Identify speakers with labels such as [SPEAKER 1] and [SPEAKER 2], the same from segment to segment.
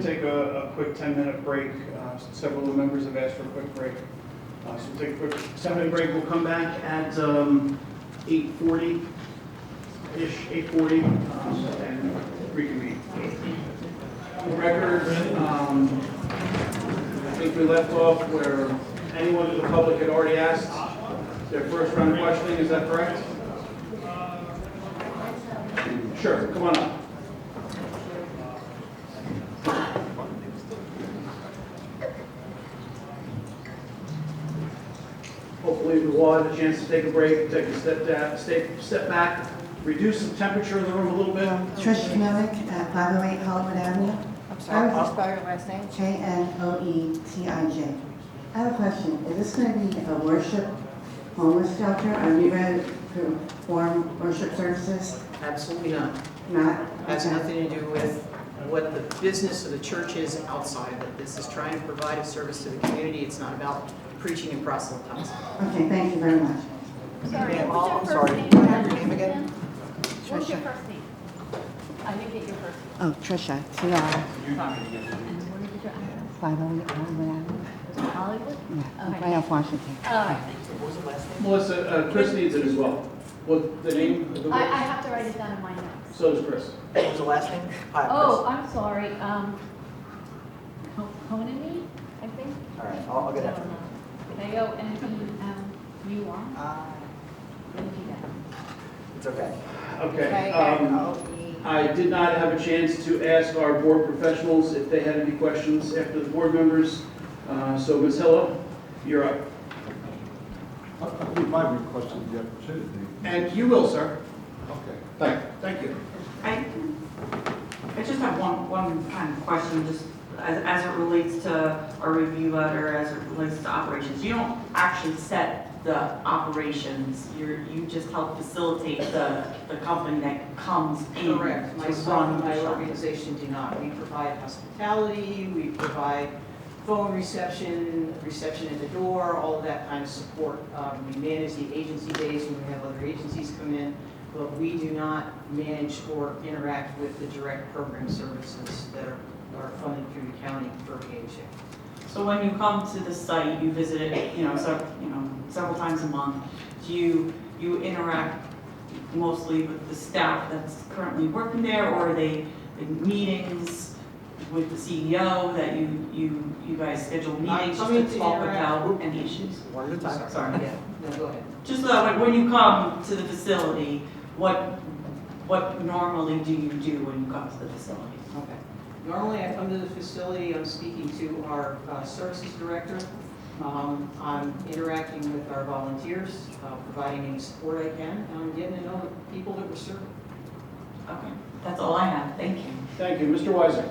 [SPEAKER 1] take a, a quick 10-minute break. Uh, Several of the members have asked for a quick break. Uh, So we'll take a quick 10-minute break. We'll come back at um, 8:40-ish, 8:40, um, and reconvene. The record, um, I think we left off where anyone in the public had already asked their first round of questioning, is that correct? Sure, come on up. Hopefully, we will have a chance to take a break, take a step down, step, step back, reduce the temperature in the room a little bit.
[SPEAKER 2] Trish Millick at 508 Hollywood Avenue.
[SPEAKER 3] I'm sorry,
[SPEAKER 2] I
[SPEAKER 3] can you
[SPEAKER 2] have
[SPEAKER 3] spell your last name?
[SPEAKER 2] J-N-O-E-T-I-J. E I have a question. Is this going to be a worship homeless shelter? Are you ready to perform worship services?
[SPEAKER 4] Absolutely not.
[SPEAKER 2] Not?
[SPEAKER 4] Has
[SPEAKER 2] Okay.
[SPEAKER 4] nothing to do with what the business of the church is outside of it. This is trying to provide a service to the community. It's not about preaching and proselytizing.
[SPEAKER 2] Okay, thank you very much.
[SPEAKER 5] Sorry,
[SPEAKER 4] Ma'am,
[SPEAKER 5] what's your
[SPEAKER 4] I'm
[SPEAKER 5] first
[SPEAKER 4] sorry.
[SPEAKER 5] name?
[SPEAKER 4] Can I have your name again?
[SPEAKER 5] What's your first name? I didn't get your first name.
[SPEAKER 2] Oh, Trisha, T-R,
[SPEAKER 5] And where did you,
[SPEAKER 2] 508 Hollywood Avenue.
[SPEAKER 5] was it Hollywood?
[SPEAKER 2] Yeah,
[SPEAKER 5] Okay.
[SPEAKER 2] right off Washington.
[SPEAKER 5] All right.
[SPEAKER 1] Melissa, uh, Chris needs it as well. What, the name of the
[SPEAKER 5] I, I
[SPEAKER 1] book?
[SPEAKER 5] have to write it down in my notes.
[SPEAKER 1] So does Chris.
[SPEAKER 4] What was the last name? Hi,
[SPEAKER 5] Oh, I'm sorry, um, Co- Conany, I think?
[SPEAKER 4] Chris. All right, I'll I'll get after
[SPEAKER 5] K-O-N-E-M-U-R,
[SPEAKER 4] Uh, It's okay.
[SPEAKER 1] Okay. um,
[SPEAKER 3] E.
[SPEAKER 1] I did not have a chance to ask our board professionals if they had any questions after the board members. Uh, So Ms. Hillo, you're up.
[SPEAKER 6] I I believe my request is the opportunity.
[SPEAKER 1] And you will, sir.
[SPEAKER 6] Okay.
[SPEAKER 1] Thank Thank you.
[SPEAKER 7] I, I just have one, one kind of question, just as, as it relates to our review letter, as it relates to operations. You don't actually set the operations, you're, you just help facilitate the, the company that comes in to
[SPEAKER 4] Correct. Myself
[SPEAKER 7] run
[SPEAKER 4] and my
[SPEAKER 7] the shop.
[SPEAKER 4] organization do not. We provide hospitality, we provide phone reception, reception at the door, all of that kind of support. Um, We manage the agency days when we have other agencies come in, but we do not manage or interact with the direct program services that are are funded through the county for KHA.
[SPEAKER 7] So when you come to the site, you visit it, you know, several, you know, several times a month, do you, you interact mostly with the staff that's currently working there, or are they in meetings with the CEO that you, you, you guys schedule
[SPEAKER 4] I
[SPEAKER 7] meetings just
[SPEAKER 4] come in
[SPEAKER 7] to
[SPEAKER 4] to
[SPEAKER 7] talk
[SPEAKER 4] interact-
[SPEAKER 7] about any issues?
[SPEAKER 4] One at a time. Sorry, yeah, no, go ahead.
[SPEAKER 7] Just so that when you come to the facility, what, what normally do you do when you come to the facility?
[SPEAKER 4] Okay. Normally, I come to the facility, I'm speaking to our uh, services director. Um, I'm interacting with our volunteers, uh, providing any support I can, and I'm getting to know the people that we're serving.
[SPEAKER 7] Okay, that's all I have, thank you.
[SPEAKER 1] Thank you. Mr. Weiser?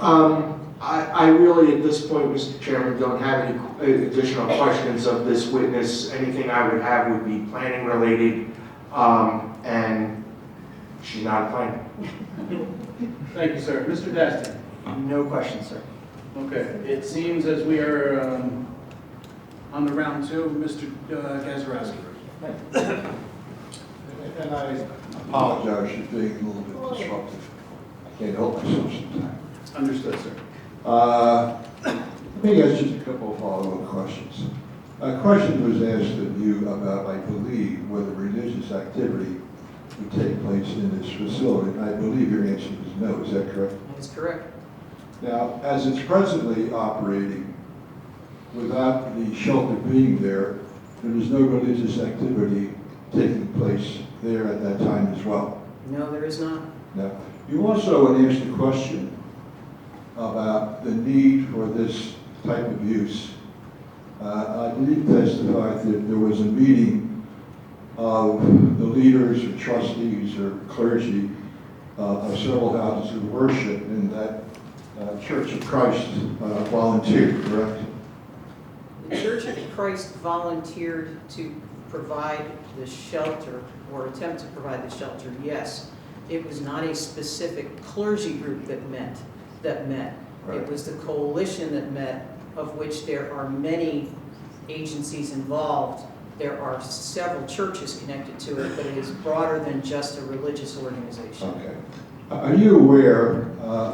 [SPEAKER 8] Um, I, I really, at this point, Mr. Chairman, don't have any qu- additional questions of this witness. Anything I would have would be planning related, um, and she's not a planner.
[SPEAKER 1] Thank you, sir. Mr. Dasty?
[SPEAKER 4] No questions, sir.
[SPEAKER 1] Okay, it seems as we are um, on the round two, Mr. uh, Gazarovski.
[SPEAKER 6] And- And I apologize for being a little bit disruptive. I can't help myself sometimes.
[SPEAKER 1] Understood, sir.
[SPEAKER 6] Uh, Let me ask just a couple of follow-up questions. A question was asked of you about, I believe, whether religious activity would take place in this facility. And I believe your answer was no, is that correct?
[SPEAKER 4] That is correct.
[SPEAKER 6] Now, as it's presently operating, without the shelter being there, there is no religious activity taking place there at that time as well.
[SPEAKER 4] No, there is not.
[SPEAKER 6] Now, you also had asked a question about the need for this type of use. Uh, I believe you testified that there was a meeting of the leaders or trustees or clergy uh, of several houses of worship in that uh, Church of Christ uh, volunteered, correct?
[SPEAKER 4] The Church of Christ volunteered to provide the shelter, or attempt to provide the shelter, yes. It was not a specific clergy group that met, that met. It
[SPEAKER 6] Right.
[SPEAKER 4] was the coalition that met, of which there are many agencies involved. There are several churches connected to it, but it is broader than just a religious organization.
[SPEAKER 6] Okay. Are you aware uh,